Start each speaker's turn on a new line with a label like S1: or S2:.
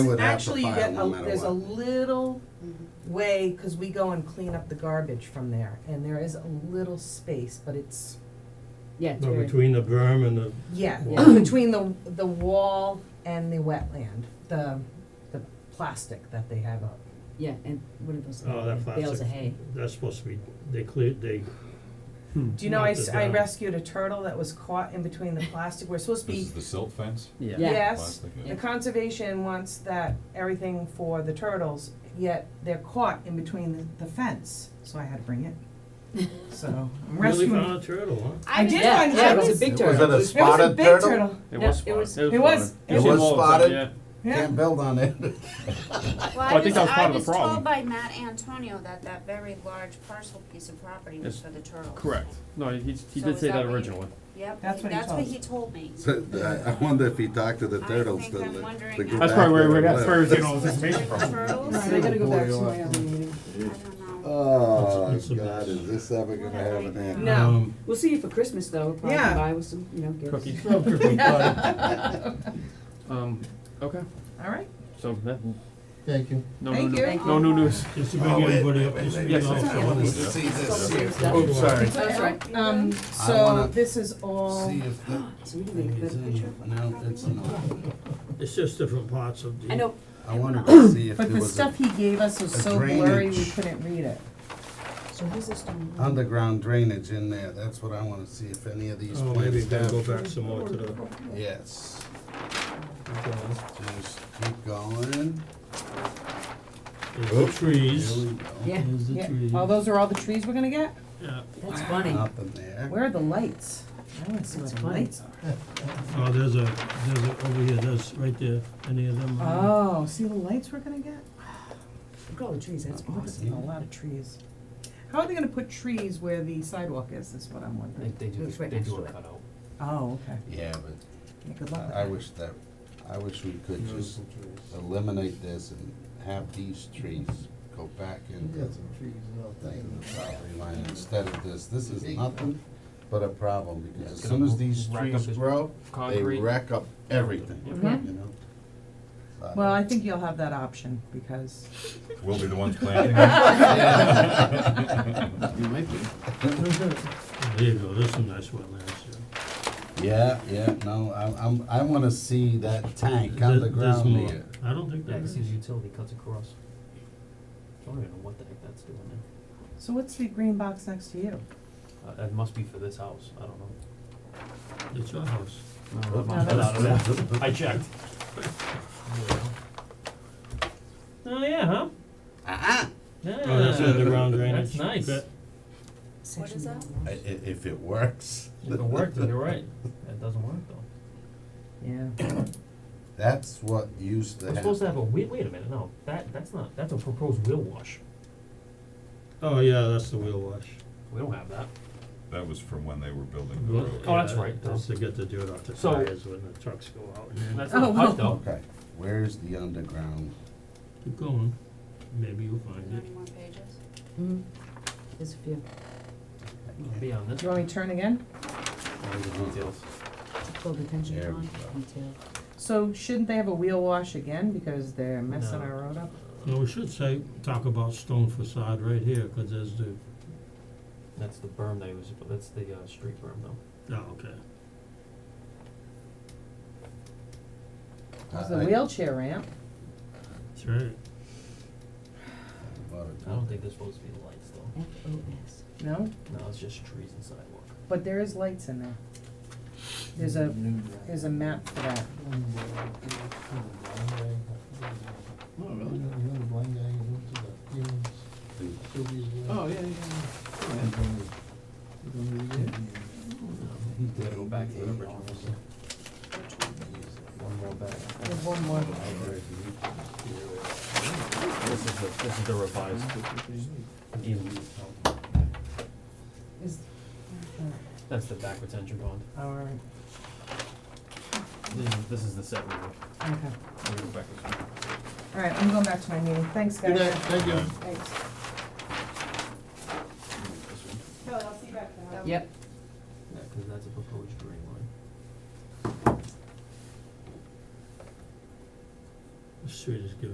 S1: They would have to
S2: Actually, you
S1: file
S2: get,
S1: no
S2: a-
S1: matter
S2: there's a
S1: what.
S2: little way, cause we go and clean up the garbage from there, and there is a little space, but it's,
S3: Yeah, it's
S4: No,
S3: very-
S4: between the berm and the,
S2: yeah,
S4: Wall.
S2: between the, the wall and the wetland, the, the plastic that they have up.
S3: yeah, and what are those?
S4: oh, that
S3: Bales of
S4: plastic,
S3: hay.
S4: that's supposed to be, they cleared, they,
S5: Hmm.
S2: Do you know, I,
S4: Knocked
S2: s-
S4: it
S2: I
S4: down.
S2: rescued a turtle that was caught in between the plastic, we're supposed to
S6: This
S2: be,
S6: is the silt fence?
S5: Yeah.
S3: Yeah.
S2: yes,
S6: Plastic,
S2: the
S6: yeah.
S2: conservation wants that, everything for the turtles, yet they're caught in between the, the fence, so I had to bring it. So, I'm
S4: really
S2: rescuing.
S4: found a turtle, huh?
S2: I did
S3: Yeah,
S2: find
S3: yeah, it
S2: turtles.
S3: was a big
S1: Was it
S3: turtle.
S1: a
S2: It was a
S1: spotted
S2: big
S1: turtle?
S2: turtle,
S5: It
S3: No,
S5: was
S3: it
S5: spotted.
S3: was-
S2: It was-
S5: spotted.
S2: it
S5: You see
S1: was
S5: them all the time,
S1: spotted.
S5: yeah.
S2: yeah.
S1: Can't build on it.
S7: Well,
S5: Well, I
S7: I
S5: think
S7: was,
S5: that was part
S7: I
S5: of the
S7: was told
S5: problem.
S7: by Matt Antonio that that very large parcel piece of property was
S5: Yes.
S7: for the turtles.
S5: Correct. No, he, he
S7: So
S5: did
S7: is
S5: say that
S7: that what you-
S5: originally.
S7: Yep,
S2: That's
S7: that's
S2: what
S7: what
S2: he told
S7: he told me.
S1: So, uh, I- I wonder if he talked to the
S7: I
S1: turtles
S7: think
S1: to,
S7: I'm
S1: li-
S7: wondering
S1: to go
S7: if-
S1: back
S5: That's probably where,
S1: there
S5: we-
S1: and
S5: that's where he was
S1: look.
S5: getting all this information
S7: The
S5: from.
S7: turtles?
S3: Right,
S7: I
S3: I gotta go back
S1: Boy,
S3: to my
S1: uh,
S3: other meeting.
S7: don't know.
S1: Oh,
S4: It's a- it's a
S1: God,
S4: mess.
S1: is this ever gonna have an end?
S2: No.
S4: Um,
S3: We'll see you for Christmas though, we'll probably
S2: Yeah.
S3: buy with some, you know, gifts.
S5: Cookies. Um, okay,
S2: All right.
S5: so that,
S1: Thank you.
S5: no new
S2: Thank
S5: news,
S2: you.
S5: no new news.
S4: Just to
S1: Oh,
S4: bring
S1: wait,
S4: everybody up
S1: wait,
S4: to
S1: wait,
S4: speed
S5: wait,
S4: on
S5: wait,
S4: it.
S1: I wanted to see
S3: Still
S1: this
S3: here,
S1: here.
S3: stuff.
S1: Oops, sorry.
S3: Oh, That's right.
S2: Um, so
S1: wanna
S2: this is all,
S1: See if the-
S3: So we can make a better picture.
S1: no, it's not.
S4: It's just different parts of the. oh,
S3: I know,
S1: I wanted to see if there
S2: but the
S1: was
S2: stuff
S1: a
S2: he gave us was
S1: a
S2: so blurry, we
S1: drainage.
S2: couldn't read it.
S3: so who's this doing?
S1: underground drainage in there. That's what I wanna see if any of these
S4: Oh, maybe
S1: plants
S4: gotta go
S1: have.
S4: back some more to the.
S1: Yes. Just keep going.
S4: There's the trees.
S1: Here we go.
S3: Yeah,
S4: There's the
S2: Yeah,
S4: trees.
S2: oh, those are all the trees we're gonna get?
S4: Yeah.
S3: that's funny.
S1: Nothing there.
S2: Where are the lights? I wanna see where
S3: That's
S2: the
S3: funny.
S2: lights are.
S4: Oh, there's a, there's a, over here, there's, right there, any of them? uh,
S2: Oh, see the lights we're gonna get?
S3: Look at all the trees, that's awesome.
S2: A lot of trees. How are they gonna put trees where the sidewalk is, is what I'm wondering. It's right next to it.
S5: cutout.
S2: Oh, okay.
S1: Yeah, but
S2: Yeah, Good luck with
S1: I I
S2: that.
S1: wish that, I wish we could
S4: there's
S1: just
S4: the trees.
S1: eliminate this and have these trees go back into the property line instead of this. This is nothing but a problem because as
S5: it's
S1: soon
S5: gonna
S1: as these
S5: rack up
S1: trees
S5: this
S1: grow, they
S5: concrete.
S1: rack up everything, you
S2: Mhm.
S1: know? But-
S2: Well, I think you'll have that option, because
S6: We'll be the ones planting it.
S5: You might be.
S4: There you go, there's some nice wetlands, yeah.
S1: Yeah, yeah, no, I, I'm, I wanna see that tank
S4: There- there's
S1: underground
S4: more.
S1: there.
S4: I don't think
S8: Yeah,
S4: that
S8: because
S4: is.
S8: his utility cuts across. I don't even know what the heck that's doing there.
S2: So what's the green box next to you?
S8: Uh, that must be for this house, I don't know.
S4: It's your house.
S8: No, that
S2: No,
S8: must- I don't know. I checked.
S4: Oh, yeah, huh? Oh, that's underground drainage.
S8: That's nice.
S4: Bet.
S7: What is that?
S1: I- i- if it works.
S8: If it worked, then you're right. That doesn't work though.
S2: Yeah.
S1: That's what used to
S8: We're supposed to
S1: happen.
S8: have a, wait, wait a minute, no, that, that's not, that's a proposed wheel wash.
S4: Oh, yeah, that's the wheel wash.
S8: We don't have that.
S6: That was from when they were building the
S4: Well,
S6: road.
S8: Oh, that's
S4: yeah,
S8: right.
S4: That's to get the dirt off the
S8: So-
S4: tires when the trucks go out.
S8: That's
S2: Oh,
S8: not
S2: well.
S8: hot though.
S1: Okay, where's the underground?
S4: Keep going, maybe you'll
S7: Is
S4: find
S7: there
S4: it.
S7: any more pages?
S3: Mhm. There's a few,
S8: It'll Be on this,
S2: Do you want me to turn again?
S8: all the details.
S3: full detention
S1: There we
S3: pond,
S1: go.
S3: detail.
S2: So shouldn't they have a wheel wash again, because they're messing
S8: No.
S2: our road up?
S4: No, we should say, talk about stone facade right here, 'cause there's the,
S8: That's the berm they use, but that's the, uh, street berm though.
S4: oh, okay.
S2: There's
S1: I-
S2: the
S1: Uh, I-
S2: wheelchair ramp.
S4: That's right.
S1: about it.
S8: I don't think there's supposed to be lights though.
S3: F O S.
S2: No,
S8: No, it's just trees and sidewalk.
S2: but there is lights in there. There's a, there's a map for that.
S5: Oh, yeah, yeah,
S8: Go back to the original. One more back.
S2: There's one more.
S8: This is the, this is the revised. E easement.
S2: Is, uh,
S8: That's the back retention pond.
S2: oh, all right,
S8: This is, this is the set we were,
S2: okay.
S8: we were back with.
S2: All right, I'm going back to my meeting. Thanks, guys.
S1: thank you.
S2: Thanks. Kelly, I'll see you back now.
S3: Yep,
S8: Yeah, cause that's a proposed green line.
S4: Let's street is given